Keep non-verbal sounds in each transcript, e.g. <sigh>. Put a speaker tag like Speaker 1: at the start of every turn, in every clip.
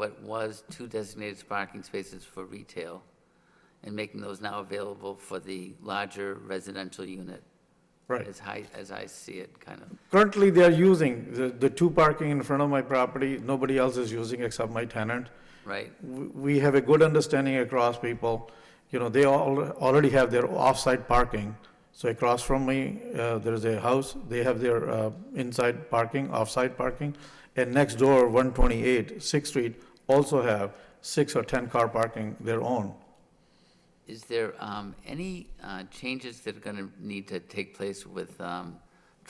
Speaker 1: what was two designated parking spaces for retail and making those now available for the larger residential unit,
Speaker 2: Right.
Speaker 1: as I, as I see it, kind of.
Speaker 2: Currently, they are using the, the two parking in front of my property, nobody else is using except my tenant.
Speaker 1: Right,
Speaker 2: We we have a good understanding across people, you know, they all, already have their off-site parking. So across from me, uh, there is a house, they have their uh, inside parking, off-site parking. And next door, 128 Sixth Street, also have six or 10 car parking their own.
Speaker 1: is there um, any uh, changes that are going to need to take place with um,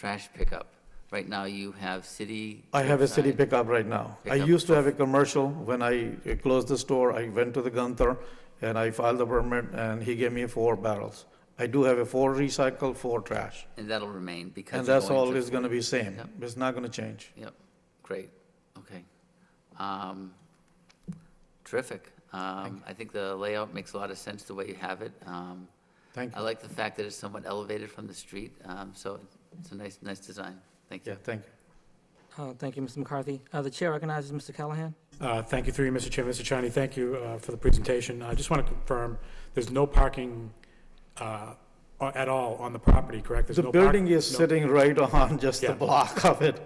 Speaker 1: trash pickup? Right now, you have city.
Speaker 2: I have a city
Speaker 1: curbside.
Speaker 2: pickup right now. I
Speaker 1: Pickup.
Speaker 2: used to have a commercial. When I uh, closed the store, I went to the Gunther and I filed the permit and he gave me four barrels. I do have a four recycle, four trash.
Speaker 1: And that'll remain because.
Speaker 2: And
Speaker 1: you're
Speaker 2: that's
Speaker 1: going to-
Speaker 2: always gonna be same.
Speaker 1: Yep.
Speaker 2: It's not gonna change.
Speaker 1: Yep, great, okay. Um, Terrific. Um, I think the layout makes a lot of sense the way you have it. Um,
Speaker 2: Thank
Speaker 1: I
Speaker 2: you.
Speaker 1: like the fact that it's somewhat elevated from the street, um, so it's a nice, nice design. Thank you.
Speaker 2: Yeah, thank you.
Speaker 3: Uh, Thank you, Mr. McCarthy. Uh, The chair recognizes Mr. Callahan.
Speaker 4: Uh, Thank you, through you, Mr. Chairman. Mr. Chani, thank you uh, for the presentation. I just want to confirm, there's no parking uh, a- at all on the property, correct? There's
Speaker 2: The
Speaker 4: no park-
Speaker 2: building is
Speaker 4: no-
Speaker 2: sitting right <laughs> on just the
Speaker 4: Yeah.
Speaker 2: block of it.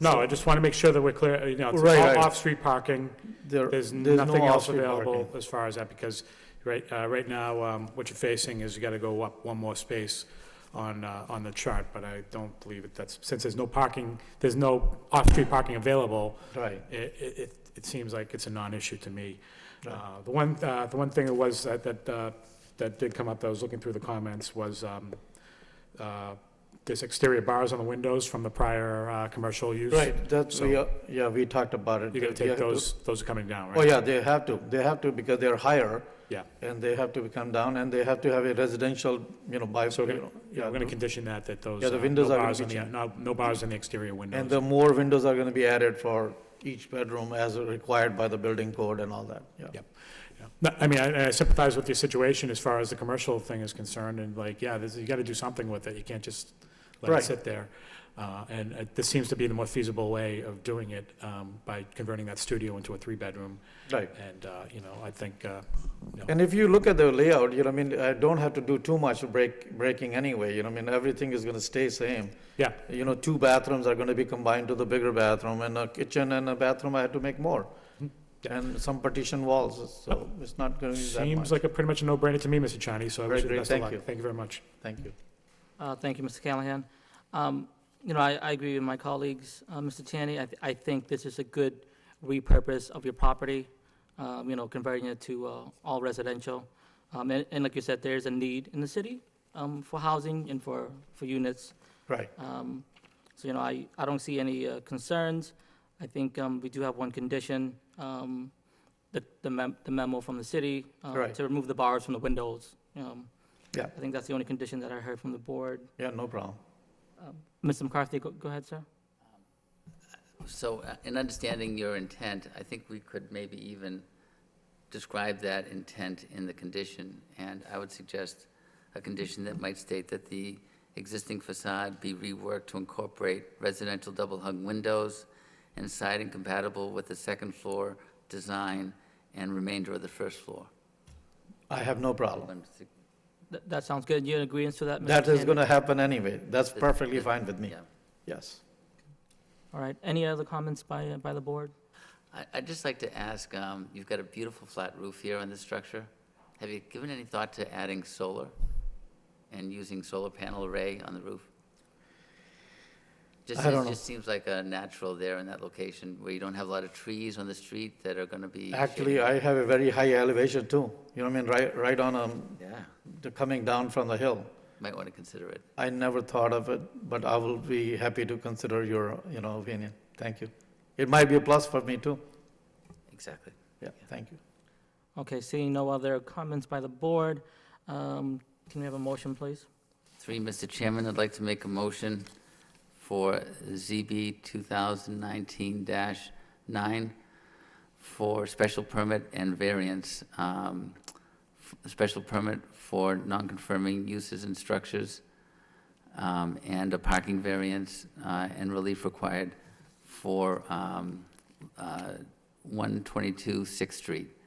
Speaker 4: No, I just want to make sure that we're clear, you know, it's
Speaker 2: Right, right.
Speaker 4: all off-street parking.
Speaker 2: There,
Speaker 4: There's
Speaker 2: there's
Speaker 4: nothing
Speaker 2: no
Speaker 4: else
Speaker 2: off-street
Speaker 4: available
Speaker 2: parking.
Speaker 4: as far as that, because right, uh, right now, um, what you're facing is you got to go up one more space on, uh, on the chart, but I don't believe it, that's, since there's no parking, there's no off-street parking available,
Speaker 2: Right.
Speaker 4: it, it, it- it seems like it's a non-issue to me. Uh, The one, uh, the one thing that was, that, that, uh, that did come up, that I was looking through the comments, was, um, uh, there's exterior bars on the windows from the prior, uh, commercial use.
Speaker 2: Right, that's,
Speaker 4: So-
Speaker 2: we, uh, yeah, we talked about it.
Speaker 4: You're gonna
Speaker 2: They
Speaker 4: take
Speaker 2: have to-
Speaker 4: those, those are coming down, right?
Speaker 2: Oh, yeah, they have to. They have to because they're higher.
Speaker 4: Yeah.
Speaker 2: and they have to come down, and they have to have a residential, you know, by,
Speaker 4: So
Speaker 2: you
Speaker 4: we're gonna,
Speaker 2: know,
Speaker 4: yeah, we're
Speaker 2: yeah,
Speaker 4: gonna condition that, that those.
Speaker 2: Yeah, the
Speaker 4: uh,
Speaker 2: windows
Speaker 4: no
Speaker 2: are gonna
Speaker 4: bars
Speaker 2: be
Speaker 4: on the-
Speaker 2: changed.
Speaker 4: No, no bars in the exterior windows.
Speaker 2: And the more windows are gonna be added for each bedroom as required by the building code and all that, yeah.
Speaker 4: Yep. Yeah. No, I mean, I I sympathize with your situation as far as the commercial thing is concerned, and like, yeah, this, you gotta do something with it, you can't just let
Speaker 2: Right.
Speaker 4: it sit there. Uh, and uh, this seems to be the more feasible way of doing it, um, by converting that studio into a three-bedroom.
Speaker 2: Right.
Speaker 4: And, uh, you know, I think, uh, you know,
Speaker 2: And if you look at the layout, you know, I mean, I don't have to do too much break, breaking anyway, you know, I mean, everything is gonna stay same.
Speaker 4: yeah,
Speaker 2: You know, two bathrooms are gonna be combined to the bigger bathroom, and a kitchen and a bathroom, I had to make more.
Speaker 4: Mm-hmm. Yeah.
Speaker 2: And some partition walls, so it's not gonna be that
Speaker 4: seems
Speaker 2: much.
Speaker 4: like a pretty much a no-brainer to me, Mr. Chani, so I
Speaker 2: Very
Speaker 4: wish you the
Speaker 2: great,
Speaker 4: best of
Speaker 2: thank
Speaker 4: luck.
Speaker 2: you.
Speaker 4: Thank you very much.
Speaker 2: Thank you.
Speaker 3: Uh, Thank you, Mr. Callahan. Um, You know, I I agree with my colleagues. Uh, Mr. Chaney, I th- I think this is a good repurpose of your property, um, you know, converting it to uh, all residential. Um, And and like you said, there's a need in the city um, for housing and for for units.
Speaker 2: Right,
Speaker 3: Um, So, you know, I, I don't see any uh, concerns. I think um, we do have one condition, um, the the mem- the memo from the city. uh,
Speaker 2: Right.
Speaker 3: To remove the bars from the windows. Um,
Speaker 2: Yeah.
Speaker 3: I think that's the only condition that I heard from the board.
Speaker 2: yeah, no problem.
Speaker 3: Mr. McCarthy, go go ahead, sir.
Speaker 1: So uh, in understanding your intent, I think we could maybe even describe that intent in the condition. And I would suggest a condition that might state that the existing facade be reworked to incorporate residential double-hung windows and siding compatible with the second floor design and remainder of the first floor.
Speaker 2: I have no problem.
Speaker 1: I'm su-
Speaker 3: Th- That sounds good. You in agreement to that? Mr.
Speaker 2: That is
Speaker 3: Chaney?
Speaker 2: gonna happen anyway. That's perfectly
Speaker 1: that-
Speaker 2: fine with me.
Speaker 1: yeah.
Speaker 2: Yes.
Speaker 3: All right. Any other comments by, uh, by the board?
Speaker 1: I- I'd just like to ask, um, you've got a beautiful flat roof here on this structure. Have you given any thought to adding solar and using solar panel array on the roof? Just
Speaker 2: I don't
Speaker 1: It
Speaker 2: know.
Speaker 1: just seems like a natural there in that location where you don't have a lot of trees on the street that are going to be.
Speaker 2: Actually,
Speaker 1: shading.
Speaker 2: I have a very high elevation too. You know what I mean? Right, right on, um,
Speaker 1: Yeah,
Speaker 2: the coming down from the hill.
Speaker 1: might want to consider it.
Speaker 2: I never thought of it, but I will be happy to consider your, you know, opinion. Thank you. It might be a plus for me too.
Speaker 1: Exactly.
Speaker 2: Yeah, thank you.
Speaker 3: Okay, seeing no other comments by the board, um, can we have a motion, please?
Speaker 1: Three, Mr. Chairman, I'd like to make a motion for ZB 2019-9 for special permit and variance, um, f- a special permit for non-conforming uses and structures, um, and a parking variance uh, and relief required for um, uh, 122 Sixth Street.